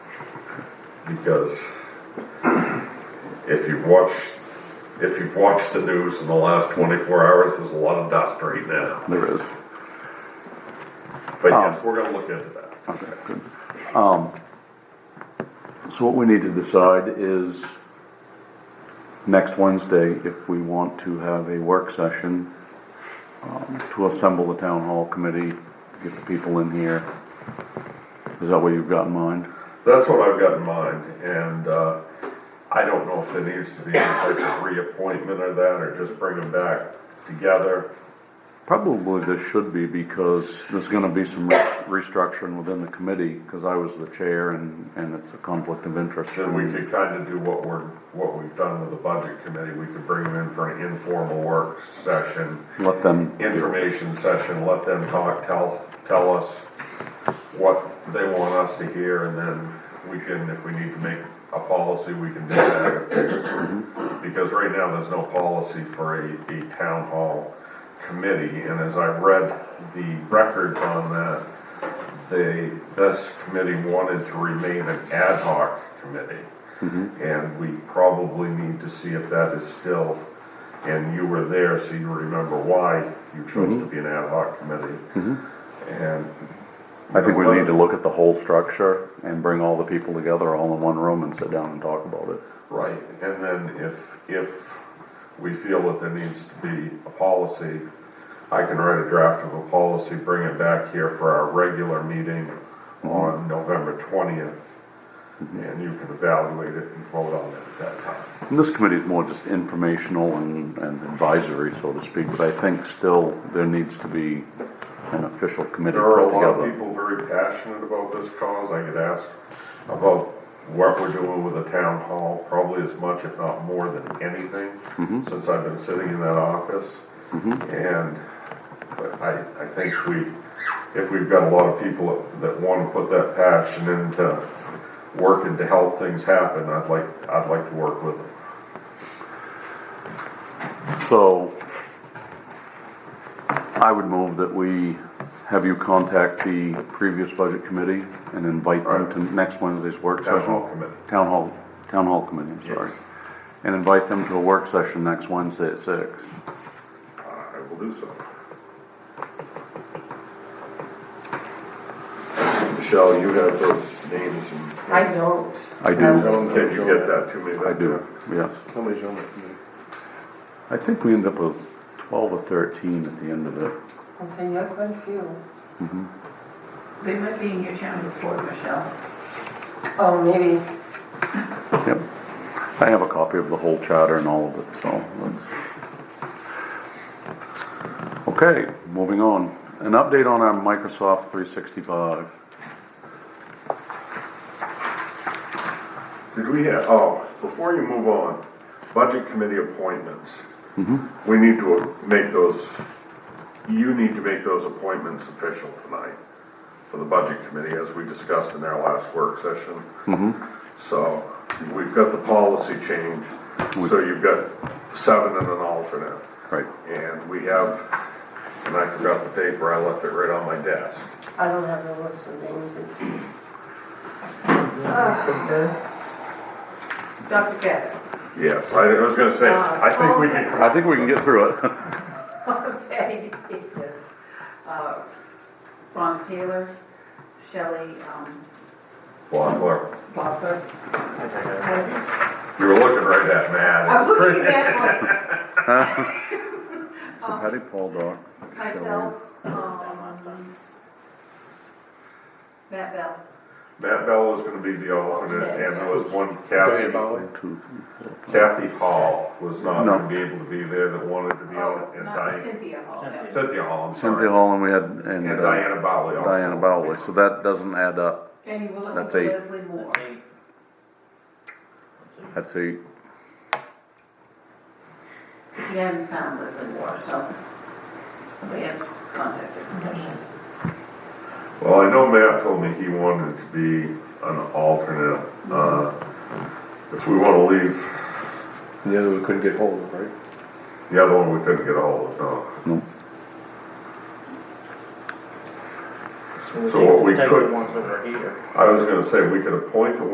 because if you've watched, if you've watched the news in the last twenty-four hours, there's a lot of dust right now. There is. But yes, we're gonna look into that. Okay, good. Um, so what we need to decide is next Wednesday, if we want to have a work session um, to assemble the town hall committee, get the people in here. Is that what you've got in mind? That's what I've got in mind, and, uh, I don't know if there needs to be any type of reappointment or that, or just bring them back together. Probably there should be because there's gonna be some re- restructuring within the committee, cause I was the chair and, and it's a conflict of interest. for Then we me. could kinda do what we're, what we've done with the budget committee, we could bring them in for an informal work session. Let them, information session, let them talk, tell, tell us what they want us to hear, and then we can, if we need to make a policy, we can do that. Because right now, there's no policy for a, a town hall committee, and as I read the records on that, they, this committee wanted to remain an ad hoc committee. Mm-hmm. And we probably need to see if that is still, and you were there, so you remember why you chose Mm-hmm. to be an ad hoc committee. And. I think we need to look at the whole structure and bring all the people together all in one room and sit down and talk about it. Right, and then if, if we feel that there needs to be a policy, I can write a draft of a policy, bring it back here for our regular meeting on November twentieth. And you can evaluate it and vote on it at that time. And this committee is more just informational and, and advisory, so to speak, but I think still there needs to be an official committee There are put a lot of together. people very passionate about this cause, I get asked about what we're doing with the town hall, probably as much, if not more than anything, since I've been sitting in that office. Mm-hmm. And but I, I think we, if we've got a lot of people that wanna put that passion into working to help things happen, I'd like, I'd like to work with them. So I would move that we have you contact the previous budget committee and invite them to next Wednesday's work Town session. hall committee. Town hall, town hall committee, I'm sorry. Yes. And invite them to a work session next Wednesday at six. I will do so. Michelle, you have those names and. I don't. I do, Joan, can you get that to me? I do, yes. How many's on it? I think we end up with twelve or thirteen at the end of it. I'll send you quite a few. They might be in your town before, Michelle. Oh, maybe. Yep. I have a copy of the whole charter and all of it, so let's. Okay, moving on. An update on our Microsoft three sixty-five. Did we have, oh, before you move on, budget committee appointments. We need to make those, you need to make those appointments official tonight for the budget committee, as we discussed in our last work session. So, we've got the policy change, so you've got seven and an alternate. Right. And we have, and I forgot the paper, I left it right on my desk. I don't have a list of names. Dr. Gabbard. Yes, I was gonna say, I think we Oh. can, I think we can get through it. Patty Davis. uh, Ron Taylor, Shelley, um, Well, Butler. look, you were looking right at Matt. I was looking at one, So Patty Paul Doc. myself, um, Matt Bell. Matt Bell was gonna be the alternate, and there was one Kathy, Shelley, one, two, three, four, five. Kathy Hall was not No. gonna be able to be there that wanted to be on, and Oh, Not Diane, Cynthia Hall. that was- Cynthia Hall, I'm Cynthia sorry. Hall and we had, and And uh, Diana Bowley also. Diana Bowley, so that doesn't add up. And you were looking That's for eight. Leslie Moore. That's eight. She hadn't found Leslie Moore, so we had his contact information. Well, I know Matt told me he wanted to be an alternate, uh, if we wanna leave The other we couldn't get hold of, right? the other one, we couldn't get a hold of, no. So what we Take could- the ones that are here. I was gonna say, we could appoint the